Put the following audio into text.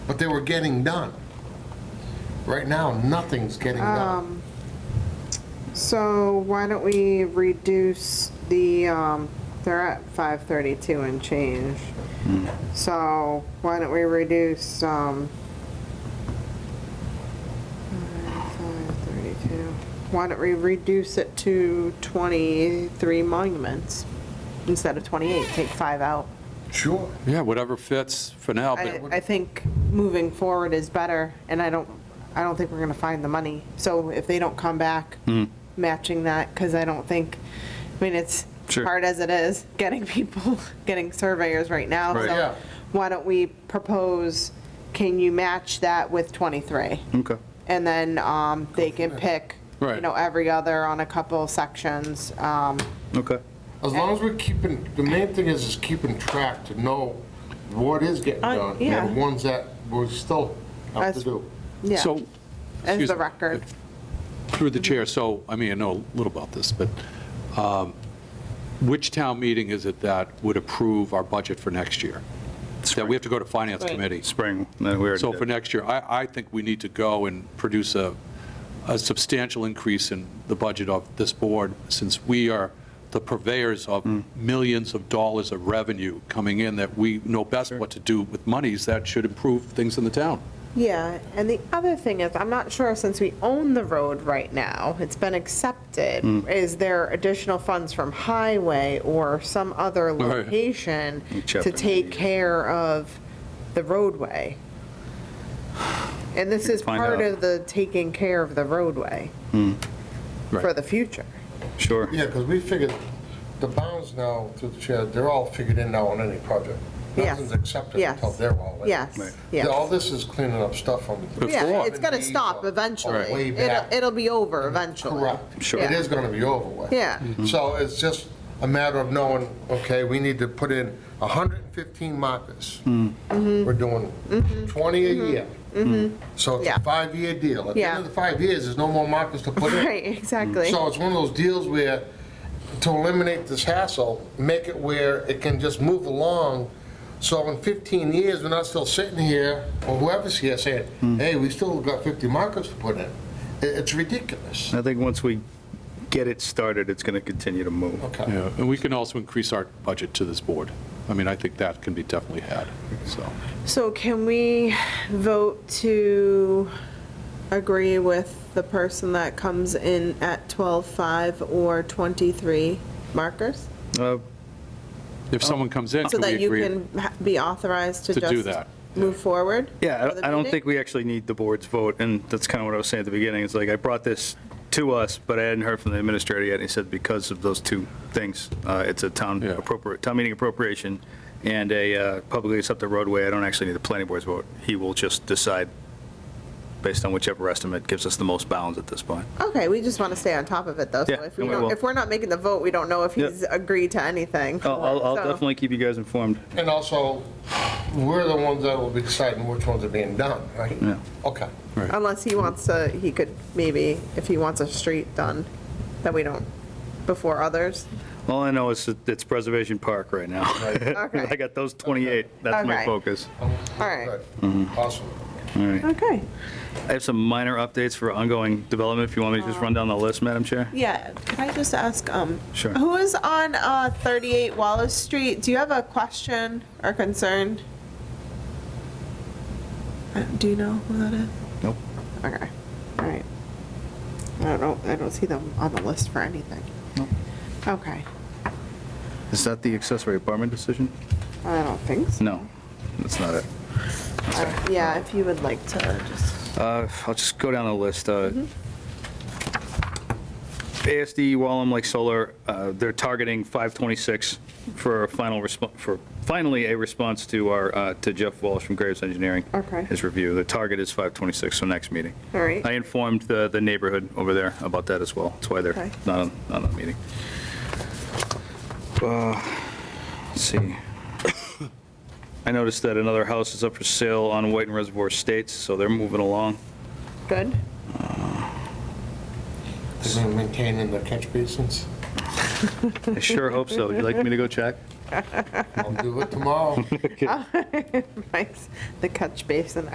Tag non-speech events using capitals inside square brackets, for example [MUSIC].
but they were getting done. Right now, nothing's getting Um, done. So why don't we reduce the, um, they're at five thirty-two and change. So why don't we reduce, um, five thirty-two, why don't we reduce it to twenty-three monuments instead of twenty-eight, take five out? Sure. Yeah, whatever fits for now, I, but I think moving forward is better, and I don't, I don't think we're gonna find the money. So if they don't come back, Hmm. matching that, because I don't think, I mean, it's Sure. hard as it is, [LAUGHS] getting people, getting surveyors right now. Right. Yeah. So why don't we propose, can you match that with 23? Okay. And then um, they can pick, you Right. know, every other on a couple sections. um, Okay. As long as we're keeping, the main thing is, is keeping track to know what is getting Uh, done yeah. and ones that we still have to As- do. Yeah, So, as excuse the me. record. through the chair, so, I mean, I know a little about this, but um, which town meeting is it that would approve our budget for next year? That we have to go to Finance Right. Committee? Spring, then we already So for did. next year, I, I think we need to go and produce a, a substantial increase in the budget of this board, since we are the purveyors of millions of dollars of revenue coming in, that we know best what to do with monies that should improve things in the town. Yeah, and the other thing is, I'm not sure, since we own the road right now, it's been accepted, Hmm. is there additional funds from highway or some Oh, other Right. location Chapter to take 90. care of the roadway? And this is Find part out. Hmm. of the taking care of the roadway for Right. the future. Sure. Yeah, because we figured, the bounds now, through the chair, they're all figured in now on any project. Yes. Nothing's accepted Yes. until they're all in. Yes, Right. yes. All this is cleaning up stuff from. Yeah, it's gonna 70s stop or- or Way eventually. It'll, back. it'll be over eventually. Correct. Sure. It is gonna be over with. Yeah. [LAUGHS] So it's just a matter of knowing, okay, we need to put in 115 markers. We're doing 20 a year. So it's Mm-hmm. Yeah. a five-year deal. At the Yeah. end of the five years, there's no more markers to put in. Right, exactly. So it's one of those deals where, to eliminate this hassle, make it where it can just move along, so in 15 years, we're not still sitting here, or whoever's here saying, hey, we still got 50 markers to put in. I- It's ridiculous. I think once we get it started, it's going to continue to move. Okay. Yeah, and we can also increase our budget to this board. I mean, I think that can be definitely had, so. So can we vote to agree with the person that comes in at 12.5 or 23 markers? Uh, If someone comes in, Oh. So can we that you agree? can ha- be authorized to To do just. that, Move forward? Yeah, for the I- I don't meeting? think we actually need the board's vote, and that's kind of what I was saying at the beginning. It's like, I brought this to us, but I hadn't heard from the administrator yet, and he said because of those two things, uh, it's a town Yeah. appropriate, town meeting appropriation and a uh, publicly accepted roadway, I don't actually need the planning board's vote. He will just decide based on whichever estimate gives us the most bounds at this point. Okay, we just want to stay on top of it though. So Yeah, if we and we don't, will. if we're not making the vote, we don't know if Yep. he's agreed to anything. I'll- I'll I'll So- definitely keep you guys informed. And also, we're the ones that will be deciding which ones are being done, right? Yeah. Okay. Unless he wants to, he could maybe, if he wants a street done, that we don't, before others. All I know is that it's Preservation Park right now. [LAUGHS] Okay. I got those 28, that's Okay. my focus. All right. Awesome. All right. Okay. I have some minor updates for ongoing development, if you want me to just Uh-huh. run down the list, Madam Chair? Yeah, could I just ask, um, Sure. who is on uh, 38 Wallace Street? Do you have a question or concern? Uh, Do you know who that is? Nope. Okay, all right. I don't know, I don't see them on the list for anything. Nope. Okay, Is that the accessory apartment decision? I don't think so. No, that's not it. Uh, Yeah, if you would like to just, Uh, I'll just go down the list. uh, Mm-hmm. ASD Wallem Lake Solar, uh, they're targeting 526 for a final response, for finally a response to our, uh, to Jeff Walsh from Graves Engineering. Okay. His review. The target is 526, so next meeting. all right. I informed the, the neighborhood over there about that as well. That's why they're Okay. not on, not on the meeting. Uh, Let's see. [COUGHS] I noticed that another house is up for sale on White and Reservoir Estates, so they're moving along. Good? [LAUGHS] Is it maintaining the catch basins? I sure hope so. Would you like me to go check? I'll do it tomorrow. Mike's the catch basin